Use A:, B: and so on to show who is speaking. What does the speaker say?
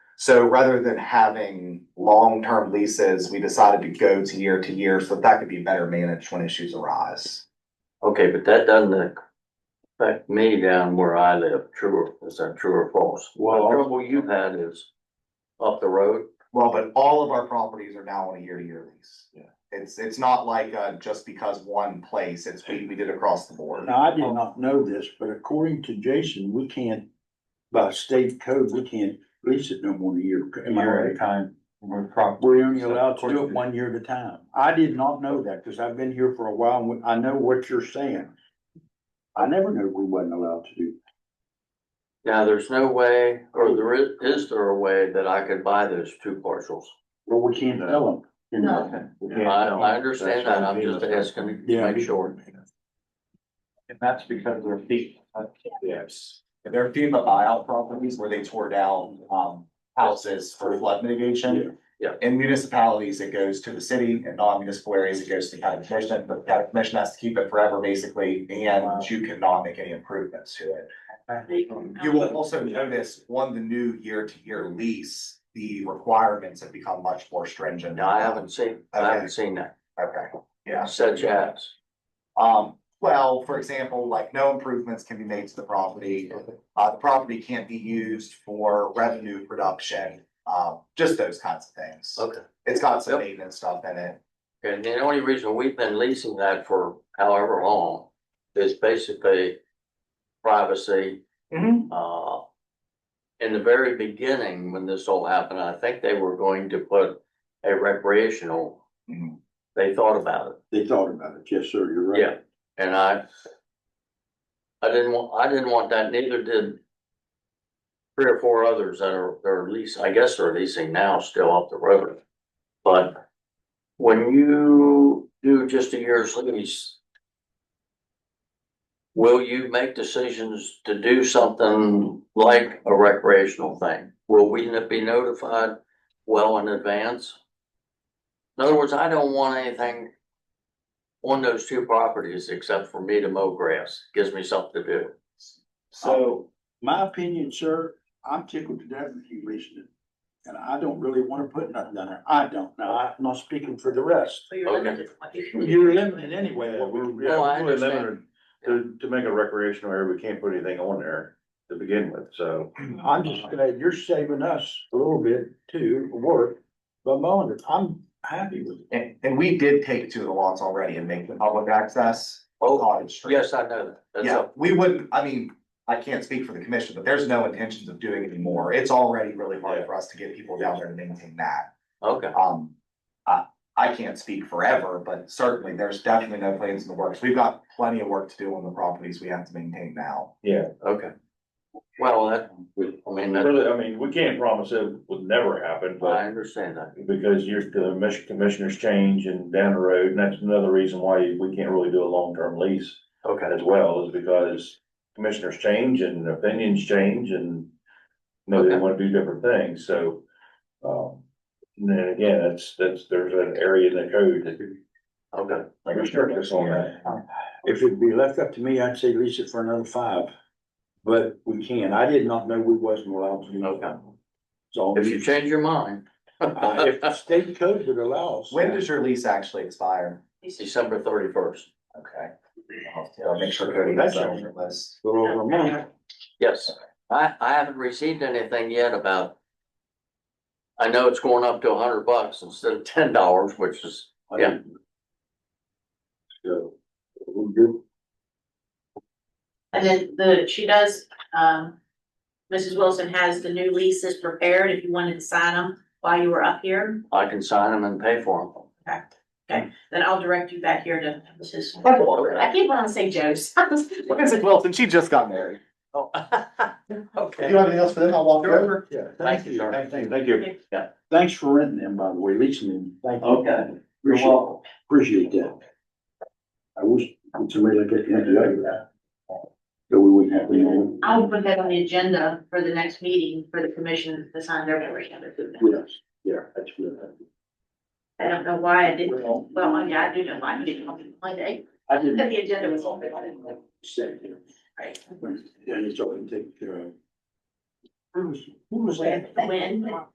A: So rather than having long-term leases, we decided to go to year to year, so that could be better managed when issues arise.
B: Okay, but that doesn't affect me down where I live, true, or- is that true or false?
C: Well,
B: The trouble you've had is up the road,
A: Well, but all of our properties are now on a year-to-year lease.
C: Yeah.
A: It's, it's not like, uh, just because one place, it's, we, we did across the board.
C: Now, I did not know this, but according to Jason, we can't, by state code, we can't lease it no more than a year. Am I
D: year at a
C: right?
D: time. We're probably,
C: We're only allowed to do it one year at a time. I did not know that because I've been here for a while and I know what you're saying. I never knew we wasn't allowed to do.
B: now there's no way, or there is, is there a way that I could buy those two parcels?
C: Well, we can't tell them.
E: No.
B: I, I understand that, I'm just asking
C: Yeah.
B: to make sure.
D: and that's because they're feet.
A: Yes. There are FEMA buyout properties where they tore down, um, houses for flood mitigation.
B: Yeah.
A: In municipalities, it goes to the city, and non-municipal areas, it goes to the county commission, but the county commission has to keep it forever, basically, and you cannot make any improvements to it. You will also notice, on the new year-to-year lease, the requirements have become much more stringent.
B: No, I haven't seen, I haven't seen that,
A: Okay, yeah.
B: such as,
A: Um, well, for example, like no improvements can be made to the property. Uh, the property can't be used for revenue production, um, just those kinds of things.
B: okay.
A: It's got some
B: Yep.
A: maintenance stuff in it.
B: And the only reason we've been leasing that for however long is basically privacy. Uh, in the very beginning, when this all happened, I think they were going to put a recreational,
A: Mhm.
B: they thought about it,
C: They thought about it. Yes, sir, you're right.
B: Yeah. and I I didn't want, I didn't want that, neither did three or four others that are, they're lease, I guess they're leasing now still up the road. But when you do just a year's lease, will you make decisions to do something like a recreational thing? Will we n- be notified well in advance? In other words, I don't want anything on those two properties except for me to mow grass. Gives me something to do.
C: So, my opinion, sir, I'm tickled to death with you reasoning. And I don't really wanna put nothing down there. I don't. Now, I'm not speaking for the rest.
E: So you're
B: Okay.
E: limited to what you-
F: You're limited anyway.
C: Well,
F: We're,
B: Oh, I
F: yeah, we're
B: understand.
F: limited to, to make a recreational area, we can't put anything on there to begin with, so.
C: I'm just glad you're saving us a little bit too, work, but mowing it, I'm happy with it.
A: And, and we did take two of the lots already and make them public access.
B: Oh,
A: Cottage Street.
B: yes, I know that. That's
A: Yeah,
B: up.
A: we wouldn't, I mean, I can't speak for the commission, but there's no intentions of doing any more. It's already really hard for us to get people down there to maintain that.
B: Okay,
A: Um, I, I can't speak forever, but certainly there's definitely no plans in the works. We've got plenty of work to do on the properties we have to maintain now.
B: okay. Well, that, I mean, that,
F: Really, I mean, we can't promise it would never happen,
B: I
F: but
B: understand that.
F: because you're, the mission commissioners change and down the road, and that's another reason why we can't really do a long-term lease
B: Okay.
F: as well, is because commissioners change and opinions change and you know, they
B: Okay.
F: wanna do different things, so. Um, and then again, that's, that's, there's an area in the code that
B: Okay,
F: I can start this on that.
C: If it'd be left up to me, I'd say lease it for another five. But we can. I did not know we wasn't allowed to. do that.
B: Okay.
C: So,
B: if you change your mind.
C: uh, if the state code would allow us.
A: When does your lease actually expire?
B: December thirty first,
A: Okay. I'll- I'll make sure Cody has that on your list.
C: Little over a month.
B: yes. I, I haven't received anything yet about. I know it's going up to a hundred bucks instead of ten dollars, which is, Yeah.
C: So, we'll do-
E: And then the, she does, um, Mrs. Wilson has the new leases prepared if you wanted to sign them while you were up here.
B: I can sign them and pay for
E: Okay, Okay. then I'll direct you back here to Mrs.
B: them. Okay.
E: I keep wanting to say Joe's.
A: Mrs. Wilson, she just got married.
B: Oh,
A: Do
B: Okay.
A: you have anything else for them? I'll walk you over.
C: Yeah,
B: Thank
C: thank
B: you,
C: you.
B: sir.
C: Thank you.
F: Thank you.
C: Thanks for renting them, by the way, leasing them. Thank you.
B: Okay.
C: Appreciate, appreciate that. I wish somebody like that had the other. So we wouldn't have. to-
E: I'll put that on the agenda for the next meeting for the commission to sign their membership.
C: Yes, yeah, that's good.
E: I don't know why I didn't, well, yeah, I do know why I didn't on Monday.
C: I didn't.
E: The agenda was on, but I didn't know.
C: Say, you know,
E: Right.
C: And it's all been taken care of. Who was, who was that?
E: When?